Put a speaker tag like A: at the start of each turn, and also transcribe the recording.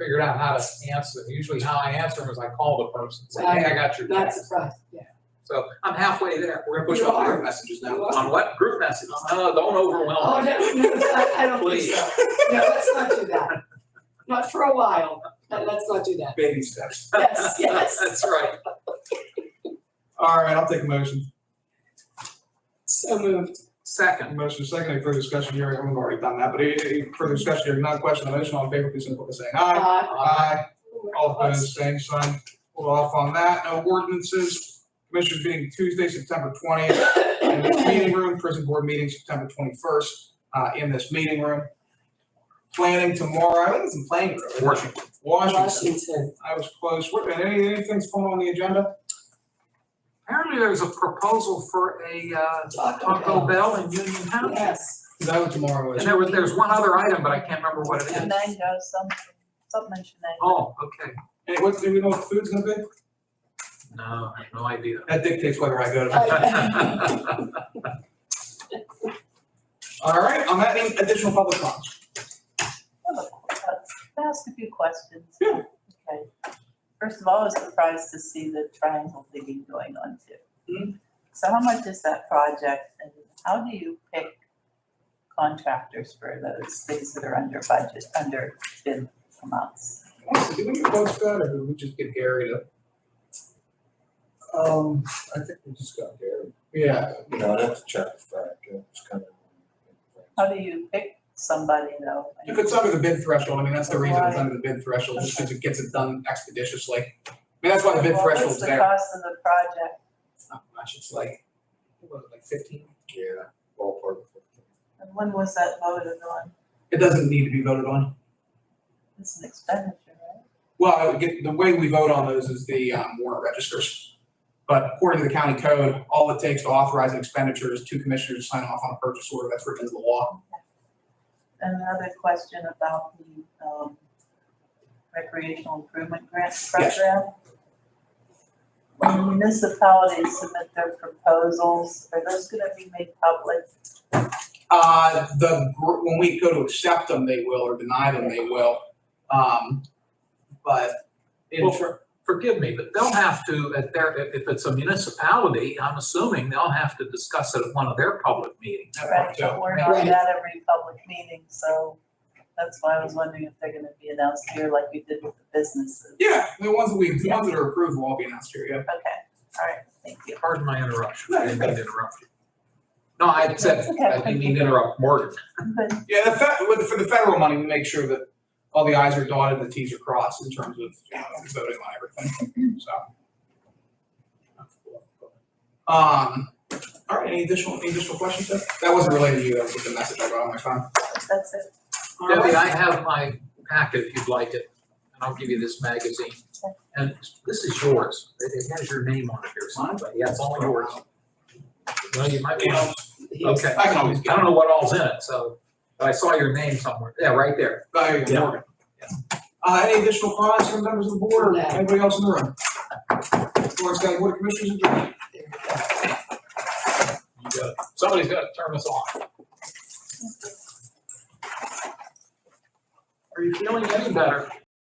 A: figured out how to answer. Usually how I answer them is I call the person, say, hey, I got your
B: Not
A: text.
B: surprised, yeah.
A: So I'm halfway there. We're gonna push
B: You
A: out
B: are.
A: group messages now.
B: You are.
A: On what? Group messages. No, don't
B: Oh,
A: overwhelm me.
B: no, no, I- I don't think so. No, let's not do that. Not for a while, but let's not do that.
A: Baby steps.
B: Yes, yes,
A: That's right.
C: All right, I'll take a motion.
B: so moved.
A: Second,
C: Motion is second, any further discussion here? I've already done that, but any, any further discussion here? Not question on the motion, all in favor, please signify by saying aye.
B: Uh,
C: Aye. All opposed, same sign. Hold off on that. No ordinances. Commissioners meeting Tuesday, September twentieth, in this meeting room. Prison board meeting September twenty-first, uh, in this meeting room. Planning tomorrow, I think it's in planning room. isn't it?
A: Washington.
C: Washington.
B: Washington.
C: I was close. What, any, anything's going on the agenda?
A: apparently there's a proposal for a uh, Taco Bell in Union Township.
B: Yes,
C: Is that what tomorrow
A: And
C: is?
A: there was, there's one other item, but I can't remember what it is.
D: Shenango, something, something Shenango.
A: Oh, okay.
C: And what, do we know what the food's gonna be?
A: No, I have no idea.
C: That dictates whether I go
A: Uh,
C: to.
A: I
C: All right, on that, any additional public comments?
D: I have a qu- uh, Can I ask a few questions?
C: Yeah.
D: Okay. First of all, I was surprised to see the triangle digging going on
C: Hmm?
D: too. So how much is that project and how do you pick contractors for those things that are under budget, under bid amounts?
C: Honestly, did we get quotes done, or did we just get Gary to? Um, I think we just got Gary. Yeah,
E: You know, I'd have to check with Frank, uh, it's kind of.
D: How do you pick somebody though?
C: if it's under the bid threshold, I mean, that's the reason it's under the bid threshold, just because it gets it done expeditiously. I mean, that's why the bid
D: Well,
C: threshold's there.
D: What's the cost of the project?
C: It's not much, it's like, what, like fifteen?
E: Yeah, ballpark.
D: And when was that voted on?
C: It doesn't need to be voted on.
D: It's an expenditure, right?
C: Well, I would get, the way we vote on those is the um, warrant registers. But according to the county code, all it takes to authorize an expenditure is two commissioners to sign off on a purchase order, that's written into the law.
D: Another question about the um, recreational improvement grant
C: Yes.
D: program. When municipalities submit their proposals, are those gonna be made public?
C: Uh, the, gr- when we go to accept them, they will, or deny them, they will. Um, but in
A: Well,
C: ter-
A: Forgive me, but they'll have to, at their, if if it's a municipality, I'm assuming they'll have to discuss it at one of their public meetings.
C: that
D: Right,
C: part
D: but
C: too.
D: we're not
B: Right.
D: at every public meeting, so that's why I was wondering if they're gonna be announced here like we did with the businesses.
C: Yeah, the ones that we, the ones that are approved will all be announced here, yeah.
D: Okay, all right, thank you.
A: Pardon my interruption.
C: No,
A: I
C: you're
A: didn't mean to interrupt you. No, I said, I didn't mean to interrupt Morgan.
D: But
C: Yeah, the fe- with, for the federal money, we make sure that all the i's are dotted and the t's are crossed in terms of, you know, voting on everything, so. Um, all right, any additional, any additional questions? Seth? That wasn't related to you, that was just a message I got on my phone.
D: that's it,
C: All
A: Debbie,
C: right.
A: I have my packet if you'd like it, and I'll give you this magazine. And this is yours. It it has your name on it here. so- Yeah, it's all yours. Well, you might want,
B: yes.
A: okay.
C: I can always
A: I
C: get
A: don't
C: it.
A: know what all's in it, so, but I saw your name somewhere. Yeah, right there.
C: There you go,
A: Yeah.
C: Morgan. Uh, any additional comments from members of the board or
B: No.
C: anybody else in the room? Lawrence County Board of Commissioners adjourned.
B: There we go.
A: You got it. Somebody's got to turn this on. Are you feeling any better?